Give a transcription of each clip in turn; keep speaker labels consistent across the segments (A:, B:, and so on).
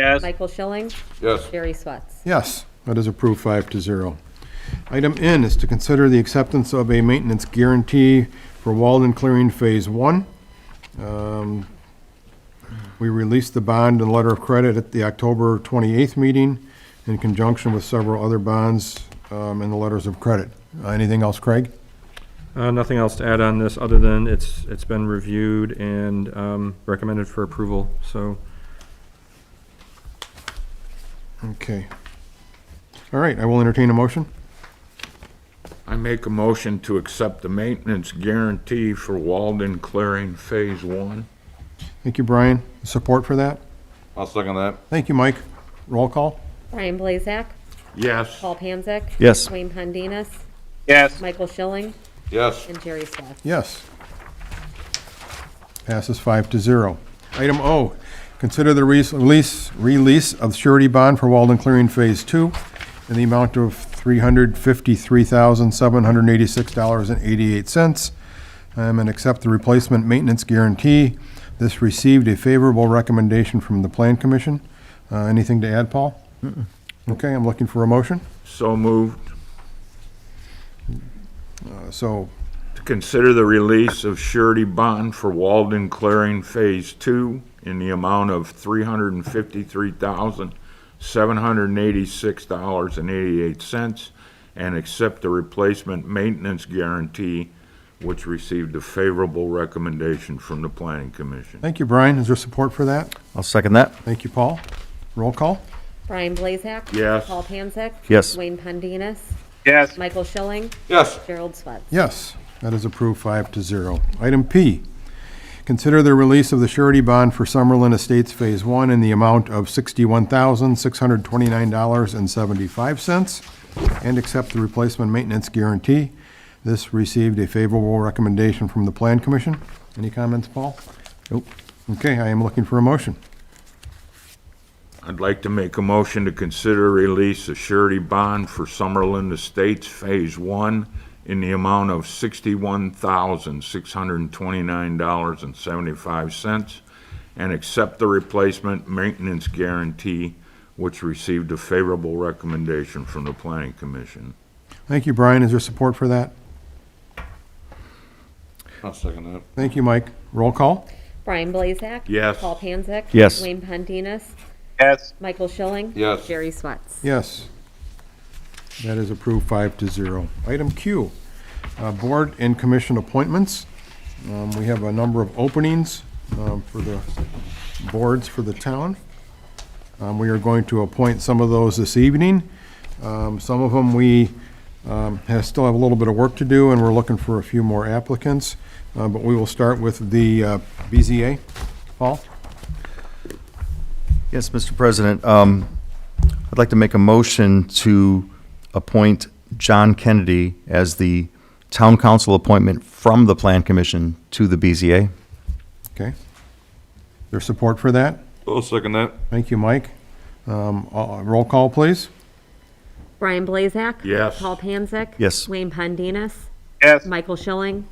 A: Yes.
B: Michael Schilling,
C: Yes.
B: Jerry Swift.
D: Yes, that is approved five to zero. Item N is to consider the acceptance of a maintenance guarantee for Walden Clearing Phase One. Um, We released the bond and letter of credit at the October twenty-eighth meeting in conjunction with several other bonds um, and the letters of credit. Uh, Anything else, Craig?
E: Uh, nothing else to add on this, other than it's, it's been reviewed and, um, recommended for approval, so.
D: Okay. All right, I will entertain a motion.
C: I make a motion to accept the maintenance guarantee for Walden Clearing Phase One.
D: Thank you, Brian. Support for that?
C: I'll second that.
D: Thank you, Mike. Roll call?
B: Brian Blazak,
C: Yes.
B: Paul Panzak.
E: Yes.
B: Wayne Pondinas,
A: Yes.
B: Michael Schilling,
C: Yes.
B: and Jerry Swift.
D: Yes. Passes five to zero. Item O, consider the res- release, release of surety bond for Walden Clearing Phase Two in the amount of three hundred fifty-three thousand, seven hundred eighty-six dollars and eighty-eight cents, Um, and accept the replacement maintenance guarantee. This received a favorable recommendation from the Plan Commission. Uh, anything to add, Paul? Okay, I'm looking for a motion.
C: So moved.
D: Uh, So,
C: To consider the release of surety bond for Walden Clearing Phase Two in the amount of three hundred and fifty-three thousand, seven hundred and eighty-six dollars and eighty-eight cents, and accept the replacement maintenance guarantee, which received a favorable recommendation from the Planning Commission.
D: thank you, Brian. Is there support for that?
F: I'll second that.
D: Thank you, Paul. Roll call?
B: Brian Blazak.
C: Yes.
B: Paul Panzak.
F: Yes.
B: Wayne Pondinas,
A: Yes.
B: Michael Schilling,
C: Yes.
B: Gerald Swift.
D: Yes, that is approved five to zero. Item P, consider the release of the surety bond for Summerlin Estates Phase One in the amount of sixty-one thousand, six hundred twenty-nine dollars and seventy-five cents, and accept the replacement maintenance guarantee. This received a favorable recommendation from the Plan Commission. Any comments, Paul? Nope. Okay, I am looking for a motion.
C: I'd like to make a motion to consider release of surety bond for Summerlin Estates Phase One in the amount of sixty-one thousand, six hundred and twenty-nine dollars and seventy-five cents, and accept the replacement maintenance guarantee, which received a favorable recommendation from the Planning Commission.
D: Thank you, Brian. Is there support for that?
C: I'll second that.
D: Thank you, Mike. Roll call?
B: Brian Blazak.
C: Yes.
B: Paul Panzak.
F: Yes.
B: Wayne Pondinas,
A: Yes.
B: Michael Schilling.
C: Yes.
B: Jerry Swift.
D: Yes. That is approved five to zero. Item Q, uh, Board and Commission appointments. Um, We have a number of openings um, for the boards for the town. Um, We are going to appoint some of those this evening. Um, Some of them, we um, have- still have a little bit of work to do, and we're looking for a few more applicants. Uh, But we will start with the uh, BZA. Paul?
F: Yes, Mr. President, um, I'd like to make a motion to appoint John Kennedy as the town council appointment from the Plan Commission to the BZA.
D: Okay. There's support for that?
C: I'll second that.
D: Thank you, Mike. Um, uh, Roll call, please.
B: Brian Blazak.
C: Yes.
B: Paul Panzak.
F: Yes.
B: Wayne Pondinas,
A: Yes.
B: Michael Schilling,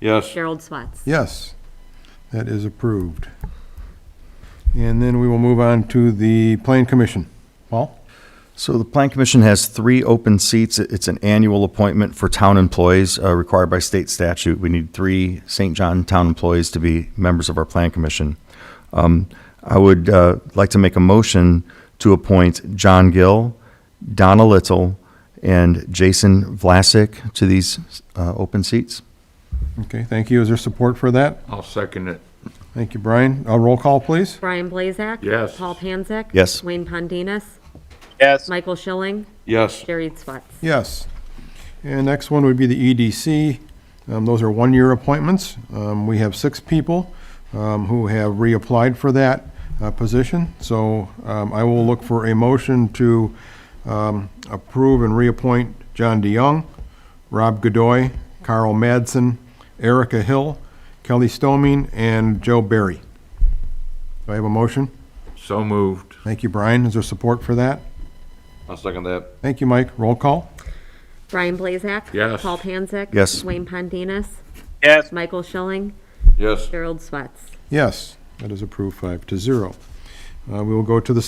C: Yes.
B: Gerald Swift.
D: Yes, that is approved. And then we will move on to the Plan Commission. Paul?
F: So the Plan Commission has three open seats. It- It's an annual appointment for town employees uh, required by state statute. We need three St. John town employees to be members of our Plan Commission. Um, I would uh, like to make a motion to appoint John Gill, Donna Little, and Jason Vlasic to these uh, open seats.
D: Okay, thank you. Is there support for that?
C: I'll second it.
D: Thank you, Brian. A roll call, please.
B: Brian Blazak.
C: Yes.
B: Paul Panzak.
F: Yes.
B: Wayne Pondinas,
A: Yes.
B: Michael Schilling,
C: Yes.
B: Jerry Swift.
D: Yes. And next one would be the EDC. Um, Those are one-year appointments. Um, We have six people um, who have reapplied for that uh, position. So um, I will look for a motion to um, approve and reappoint John DeYoung, Rob Godoy, Carl Madsen, Erica Hill, Kelly Stoming, and Joe Barry. Do I have a motion?
C: So moved.
D: Thank you, Brian. Is there support for that?
C: I'll second that.
D: Thank you, Mike. Roll call?
B: Brian Blazak.
C: Yes.
B: Paul Panzak.
F: Yes.
B: Wayne Pondinas,
A: Yes.
B: Michael Schilling,
C: Yes.
B: Gerald Swatz.
D: Yes, that is approved five to zero. Uh, We will go to the